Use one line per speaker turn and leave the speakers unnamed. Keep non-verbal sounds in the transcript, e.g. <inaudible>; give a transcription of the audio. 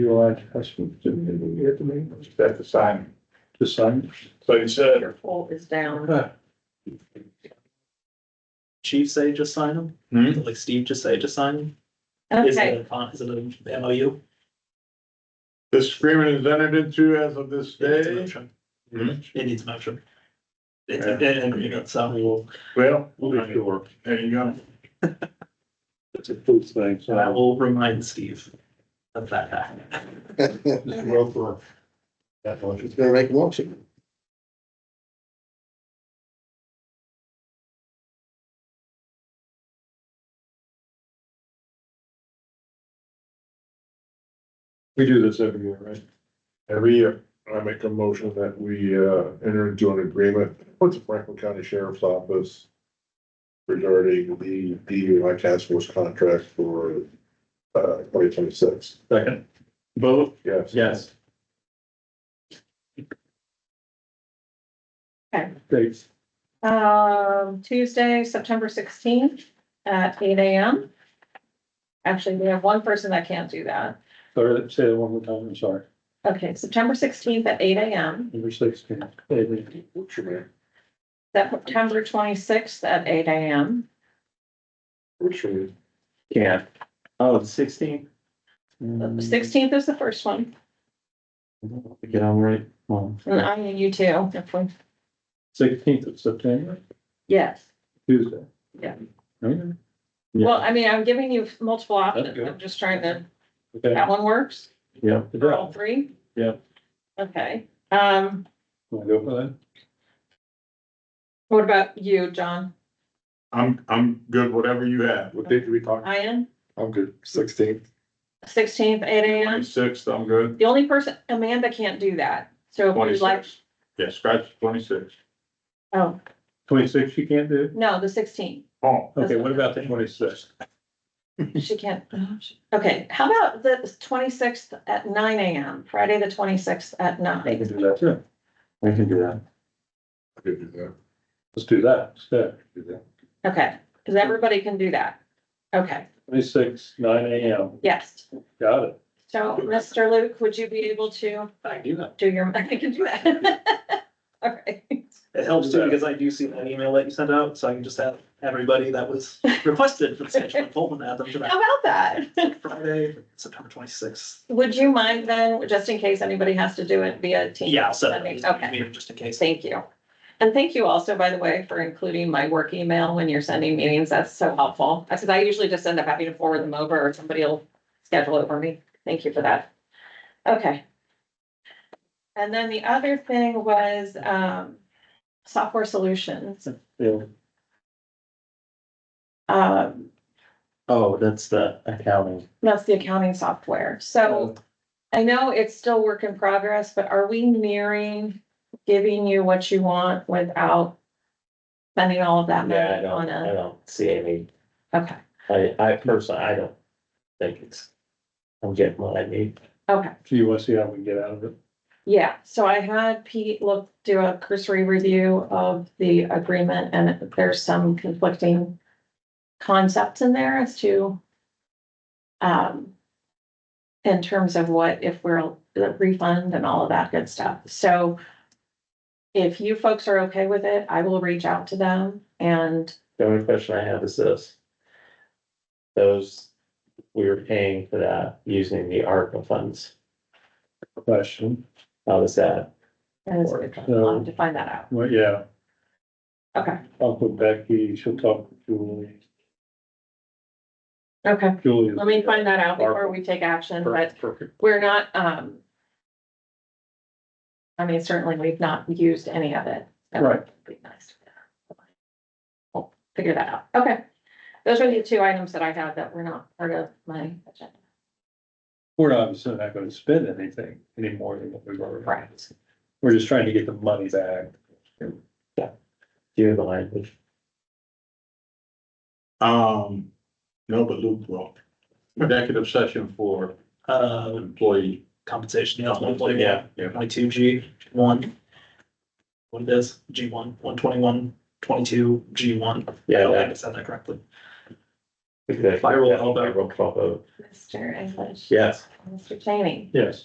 You will ask customers to be at the meeting
That's the sign.
to sign.
So you said,
Your fault is down.
Huh.
Chief say just sign them?
Hmm?
Is it Like Steve just say just sign them? Is
Okay,
it a, con- is it a MOU?
this agreement is entered into as of this
It needs a
day.
motion.
Hmm?
It needs a motion. It's
Yeah.
an agreement, so we will,
Well,
we'll, I
Sure.
there you go.
It's a food thing, so.
will remind Steve of that.
He's
Roll call. That motion.
gonna make a motion.
We do this every year, right?
Every year, I make a motion that we uh enter into an agreement with the Franklin County Sheriff's Office. Regarding the DUI task force contract for uh twenty twenty six.
Second.
Both? Yes.
Yes.
Dates.
um, Tuesday, September sixteenth at eight AM. Actually, we have one person that can't do that.
Sorry, say that one more time, I'm sorry.
Okay, September sixteenth at eight AM,
Number sixteen. David.
September twenty-sixth at eight AM.
Yeah. Oh, the sixteen?
Mm,
Sixteenth is the first one,
Get on right. Well,
and I and you too, if we-
Sixteenth of September,
yes.
Tuesday.
Yeah.
Okay. Yeah.
Well, I mean, I'm giving you multiple options,
good.
I'm just trying to,
Okay.
that one works,
Yeah.
for all three?
Yeah.
Okay, um,
Wanna go for that?
what about you, John?
I'm I'm good, whatever you have. What date do we talk?
Ian,
I'm good, sixteenth.
sixteenth, eight AM?
Twenty sixth, I'm good.
The only person, Amanda can't do that, so if
Twenty
you'd like,
six. Yeah, scratch twenty six.
oh,
Twenty-sixth you can't do?
no, the sixteenth,
Oh,
Okay, what about the twenty-sixth?
she can't. oh, she- Okay, how about the twenty-sixth at nine AM, Friday, the twenty-sixth at
I can
nine?
do that too.
I can do that.
I could do that.
Let's do that instead.
Do that.
Okay, because everybody can do that, okay,
Twenty-six, nine AM.
yes,
Got it.
so, Mr. Luke, would you be able to?
I do that.
do your, <laughs> I can do that. <laughs> All right,
It helps too, because I do see that email that you sent out, so I can just have everybody that
<laughs>
was requested for the schedule, Pullman, add them to
how
that
about that?
Friday, September twenty-sixth.
Would you mind then, just in case anybody has to do it via team?
Yeah, I'll set it up,
Okay,
just in case.
thank you. And thank you also, by the way, for including my work email when you're sending meetings. That's so helpful. Because I usually just end up having to forward them over or somebody will schedule it for me. Thank you for that. Okay. And then the other thing was um software solutions.
Yeah.
Um,
Oh, that's the accounting.
That's the accounting software. So I know it's still work in progress, but are we nearing giving you what you want without spending all of that
Yeah, I
money on
don't, I
a,
don't see any,
okay,
I, I personally, I don't think it's, I'm getting what I need.
okay.
So you wanna see how we can get out of it?
Yeah, so I had Pete look, do a cursory review of the agreement and there's some conflicting concepts in there as to um, in terms of what if we're the refund and all of that good stuff. So if you folks are okay with it, I will reach out to them and
The only question I have is this. Those, we were paying for that using the ARPA funds.
Question.
How does that?
and I'll have to find that out.
Well, yeah,
Okay,
I'll put Becky, she'll talk to Julie.
okay.
Julie. is-
Let me find that out before we take action, but
Perfect.
we're not, um. I mean, certainly we've not used any of it. so
Right.
it'd Be nice. to We'll Figure that out. Okay. Those are the two items that I have that were not part of my agenda.
We're obviously not gonna spend anything any more than what we've already.
Right.
We're just trying to get the money back.
Do you have the language?
Um, no, but Luke will. Executive session for
Uh,
employee.
compensation, yeah, one point, yeah, twenty-two G one. What it is, G one, one twenty-one, twenty-two, G one. I
Yeah,
don't think
that-
I said that correctly.
Exactly.
By roll call vote.
By roll call vote.
Mr. English.
Yes.
Mr. Cheney.
Yes.